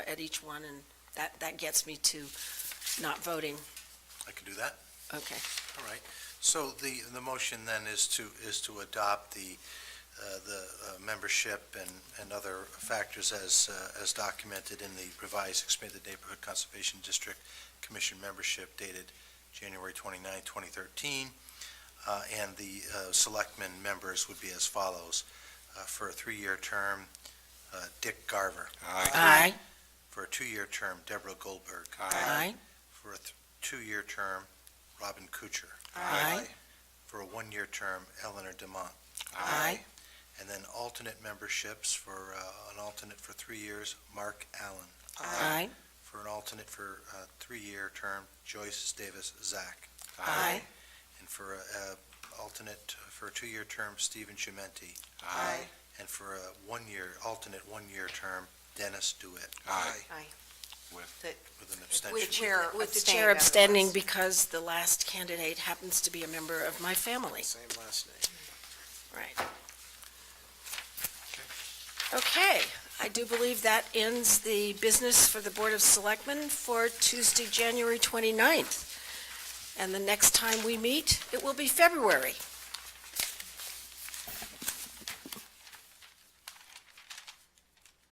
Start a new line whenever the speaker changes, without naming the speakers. at each one, and that, that gets me to not voting.
I can do that.
Okay.
All right. So the, the motion then is to, is to adopt the, uh, the uh, membership and, and other factors as, uh, as documented in the revised expanded neighborhood conservation district commission membership dated January 29, 2013. Uh, And the uh, selectmen members would be as follows. Uh, For a three-year term, uh, Dick Garver.
Aye.
For a two-year term, Deborah Goldberg.
Aye.
For a th- two-year term, Robin Kucher.
Aye.
for a one-year term, Eleanor Demont.
Aye.
And then alternate memberships for, uh, an alternate for three years, Mark Allen.
Uh,
Aye.
For an alternate for a three-year term, Joyce Davis Zach.
Aye.
And for a, a alternate uh, for a two-year term, Stephen Chimenti.
Aye.
And for a one-year, alternate one-year term, Dennis Dewitt,
Aye.
with an
With the
abstention.
chair
With the
abstaining
chair
otherwise.
abstaining because the last candidate happens to be a member of my family.
Same last name.
Right. Okay, I do believe that ends the business for the Board of Selectmen for Tuesday, January 29th. And the next time we meet, it will be February.